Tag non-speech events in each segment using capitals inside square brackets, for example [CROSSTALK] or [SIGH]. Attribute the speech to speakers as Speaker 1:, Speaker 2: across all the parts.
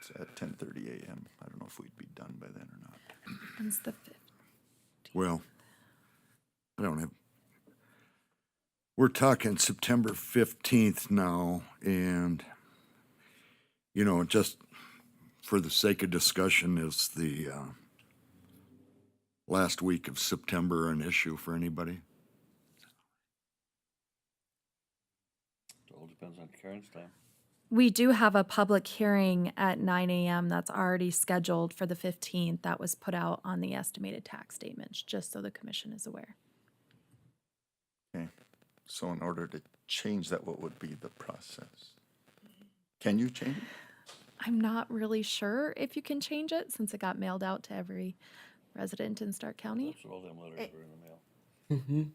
Speaker 1: It's at ten thirty AM. I don't know if we'd be done by then or not.
Speaker 2: When's the fifth?
Speaker 3: Well, I don't have, we're talking September 15th now, and, you know, just for the sake of discussion, is the uh, last week of September an issue for anybody?
Speaker 4: It all depends on Karen's time.
Speaker 2: We do have a public hearing at nine AM that's already scheduled for the fifteenth. That was put out on the estimated tax statements, just so the commission is aware.
Speaker 1: Okay, so in order to change that, what would be the process? Can you change it?
Speaker 2: I'm not really sure if you can change it since it got mailed out to every resident in Stark County.
Speaker 4: So all them letters were in the mail.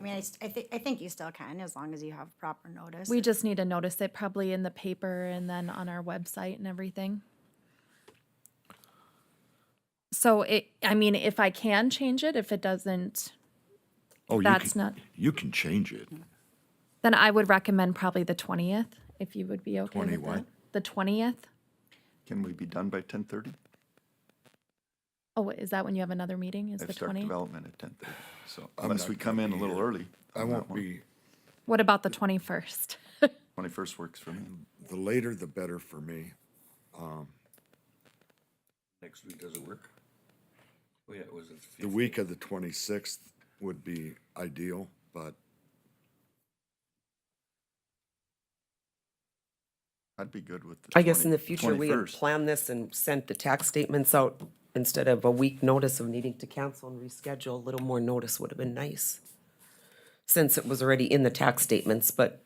Speaker 5: I mean, I, st- I think, I think you still can, as long as you have proper notice.
Speaker 2: We just need to notice it probably in the paper and then on our website and everything. So it, I mean, if I can change it, if it doesn't,
Speaker 3: Oh, you
Speaker 2: That's
Speaker 3: can-
Speaker 2: not-
Speaker 3: You can change it.
Speaker 2: then I would recommend probably the twentieth, if you would be okay
Speaker 3: 20
Speaker 2: with
Speaker 3: what?
Speaker 2: that. The twentieth?
Speaker 1: Can we be done by ten thirty?
Speaker 2: Oh, wait, is that when you have another meeting? Is
Speaker 1: I've
Speaker 2: the
Speaker 1: start
Speaker 2: twentieth?
Speaker 1: development at ten thirty, so unless we come in a little early.
Speaker 3: I won't be,
Speaker 2: What about the twenty-first? [LAUGHS]
Speaker 1: Twenty-first works for me.
Speaker 3: the later the better for me.
Speaker 4: Next week doesn't work. Oh yeah, it was. at
Speaker 3: The week of the 26th would be ideal, but
Speaker 1: I'd be good with the.
Speaker 6: I guess in
Speaker 1: 20
Speaker 6: the future, we had
Speaker 1: 21st.
Speaker 6: planned this and sent the tax statements out instead of a week notice of needing to cancel and reschedule, a little more notice would have been nice. Since it was already in the tax statements, but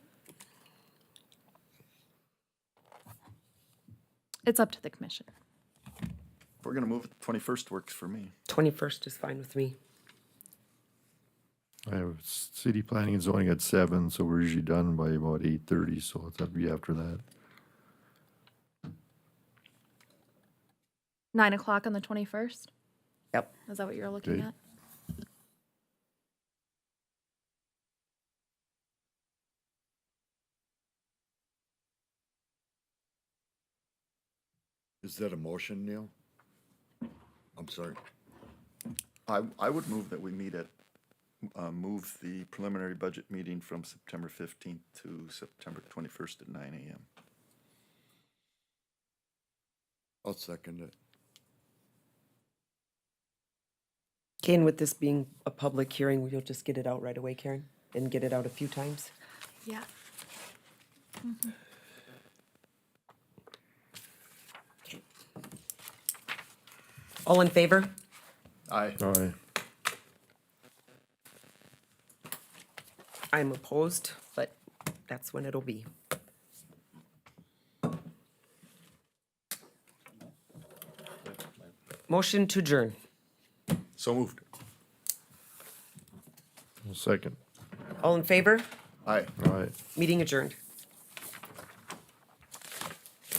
Speaker 2: It's up to the commission.
Speaker 1: If We're gonna move, it, twenty-first works for me.
Speaker 6: twenty-first is fine with me.
Speaker 7: I have s- city planning and zoning at seven, so we're usually done by about eight thirty, so it's up to be after that.
Speaker 2: Nine o'clock on the twenty-first?
Speaker 6: Yep.
Speaker 2: Is that what you're looking
Speaker 7: Okay.
Speaker 2: at?
Speaker 3: is that a motion, Neil? I'm sorry.
Speaker 1: I, I would move that we meet at, uh, move the preliminary budget meeting from September fifteenth to September twenty-first at nine AM.
Speaker 3: I'll second it.
Speaker 6: Kane, with this being a public hearing, we'll just get it out right away, Karen, and get it out a few times.
Speaker 2: Yeah.
Speaker 6: All in favor?
Speaker 1: Aye.
Speaker 7: Aye.
Speaker 6: I'm opposed, but that's when it'll be. Motion to adjourn.
Speaker 1: So moved.
Speaker 7: Second.
Speaker 6: All in favor?
Speaker 1: Aye.
Speaker 7: Aye.
Speaker 6: Meeting adjourned.